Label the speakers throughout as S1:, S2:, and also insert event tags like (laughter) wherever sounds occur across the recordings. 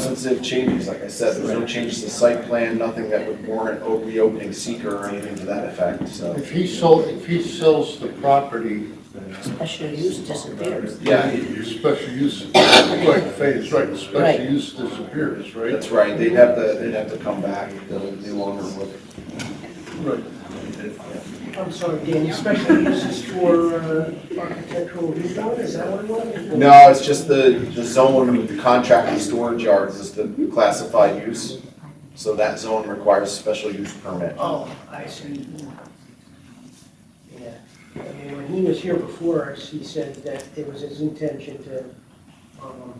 S1: Substantive changes, like I said, there's no changes to site plan, nothing that would warrant o- reopening seeker or anything to that effect, so.
S2: If he sold, if he sells the property,
S3: Special use disappears.
S1: Yeah,
S2: special use, right, Fay is right,
S3: Right.
S2: special use disappears, right?
S1: that's right, they'd have to, they'd have to come back, the, the longer look.
S2: Right.
S4: I'm sorry, Dan, your special uses for uh, architectural rezon, is that what it was?
S1: No, it's just the, the zone with the contracted storage yards is the classified use. So that zone requires special use permit.
S4: Oh, I see. Yeah, I mean, when he was here before us, he said that it was his intention to um,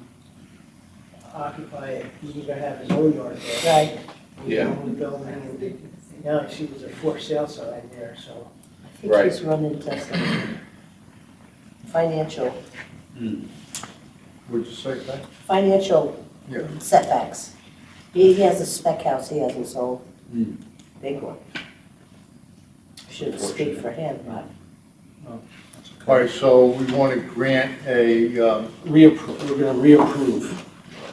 S4: occupy it, he was gonna have his own yard there.
S3: Right,
S4: He
S1: Yeah.
S4: owned the building, and now I see there's a for sale sign there, so.
S3: I think
S1: Right.
S3: he's run into some financial,
S2: Would you say that?
S3: financial
S2: Yeah.
S3: setbacks. He, he has a spec house he hasn't sold, big one. Shouldn't speak for him, but
S2: All right, so we want to grant a, um,
S5: Reapprove, we're gonna reapprove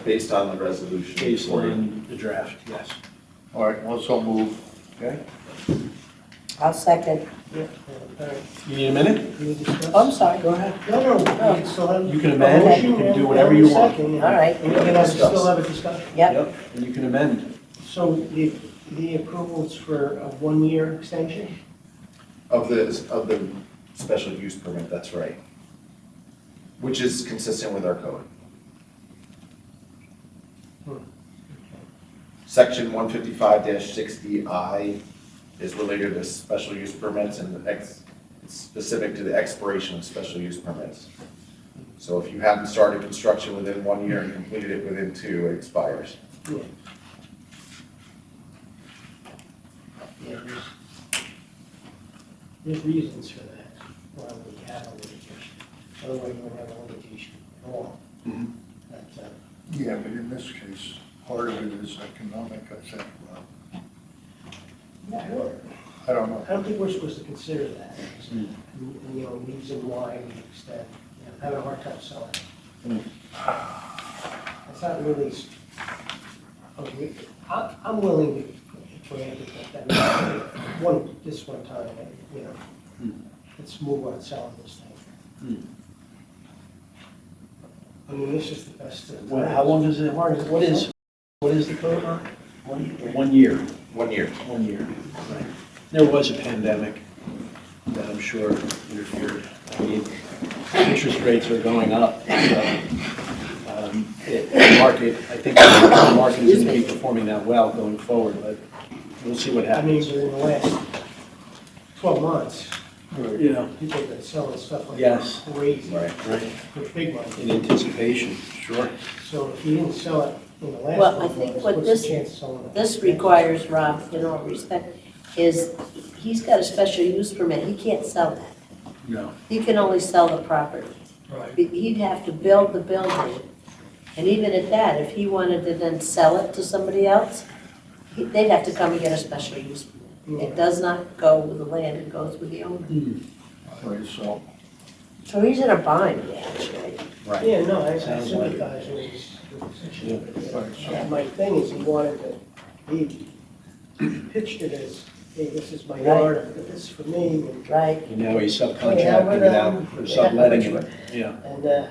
S1: Based on the resolution.
S5: based on the draft, yes.
S2: all right, also move.
S3: I'll second.
S4: All right,
S5: You need a minute?
S4: can we discuss?
S3: Oh, I'm sorry.
S4: Go ahead. No, no, we can still have.
S5: You can amend, you
S4: motion
S5: can
S4: and
S5: do whatever you
S4: a
S5: want.
S4: second,
S3: All
S4: and-
S3: right,
S4: And we can have- still have a discussion.
S3: yep,
S5: And you can amend.
S4: So the, the approval is for a one-year extension?
S1: Of the, of the special use permit, that's right. Which is consistent with our code. Section one fifty-five sixty I is related to special use permits and ex, it's specific to the expiration of special use permits. So if you haven't started construction within one year and completed it within two, it expires.
S4: Yeah, there's- There's reasons for that, why we have a litigation, otherwise we would have a litigation at all.
S1: Mhm.
S4: But, uh,
S2: Yeah, but in this case, part of it is economic, I think. Well,
S4: I don't-
S2: I don't know.
S4: I don't think we're supposed to consider that, as,
S5: Hmm.
S4: you know, reason why we extend, you know, having a hard time selling.
S5: Hmm.
S4: That's not really, s- okay, I, I'm willing to grant it, but that, (coughs) one, this one time, you know,
S5: Hmm.
S4: let's move on selling this thing. I mean, this is the best. of
S5: What, how long does it, what is- what is, what is the code on? One, one year,
S1: One year.
S5: one year, right. There was a pandemic that I'm sure interfered. I mean, interest rates are going up, so, um, it- the market, I think the market is gonna be performing that well going forward, but we'll see what
S4: I mean,
S5: happens.
S4: within the last twelve months,
S5: Yeah.
S4: people have been selling stuff like
S5: Yes.
S4: crazy.
S1: Right.
S5: Right,
S4: with big money.
S5: in anticipation, sure.
S4: So if you didn't sell it in the last
S3: Well, I
S4: twelve
S3: think
S4: months,
S3: what
S4: what's
S3: this-
S4: the chance of selling it?
S3: this requires, Rob, in all respect, is he's got a special use permit, he can't sell that.
S5: No.
S3: He can only sell the property.
S4: Right.
S3: He'd have to build the building, and even at that, if he wanted to then sell it to somebody else, he- they'd have to come and get a special use permit. It does not go with the land, it goes with the owner.
S2: All right, so,
S3: So he's in a bind, actually.
S5: Right.
S4: Yeah, no, I I
S5: Sounds like it.
S4: sympathize with his- with his
S2: all right,
S4: situation.
S2: so,
S4: And My thing is, he wanted to, he pitched it as, hey, this is my
S3: Right.
S4: yard, but this is for me, and,
S3: Right,
S5: And now he's
S4: Yeah, but,
S5: subcontracting it out,
S4: um,
S5: or subletting it, yeah.
S4: and, uh,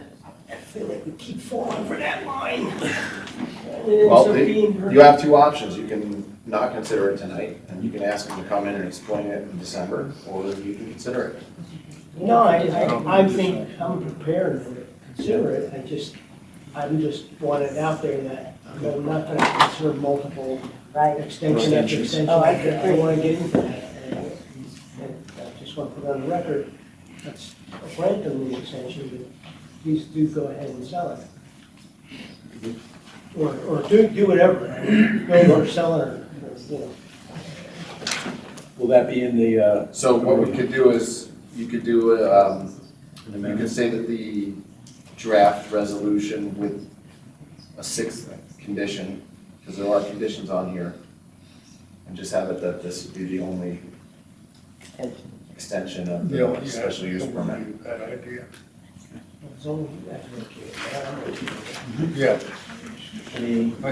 S4: I feel like we keep falling for that line. (laughs) And it
S1: Well,
S4: ends up
S1: the-
S4: being her-
S1: you have two options. You can not consider it tonight, and you can ask them to come in and explain it in December, or you can consider it.
S4: No, I, I, I think I'm prepared to consider it, I just, I'm just want it out there that I'm not gonna consider multiple
S3: right.
S4: extension after
S5: Extensions.
S4: extension.
S3: Oh, I
S4: I
S3: agree.
S4: wanna get into that, and and I just want to put on the record, that's grant them the extension, but please do go ahead and sell it. Or, or do, do whatever, build or sell it, or, you know.
S5: Will that be in the, uh,
S1: So what we could do is, you could do, a, um,
S5: in the
S1: you could
S5: minutes?
S1: say that the draft resolution with a sixth condition, because there are conditions on here, and just have it that this would be the only extension of
S2: yeah, yeah.
S1: the special use permit.
S2: That idea.
S4: it's only- that's okay. I don't know.
S2: Yeah,
S5: any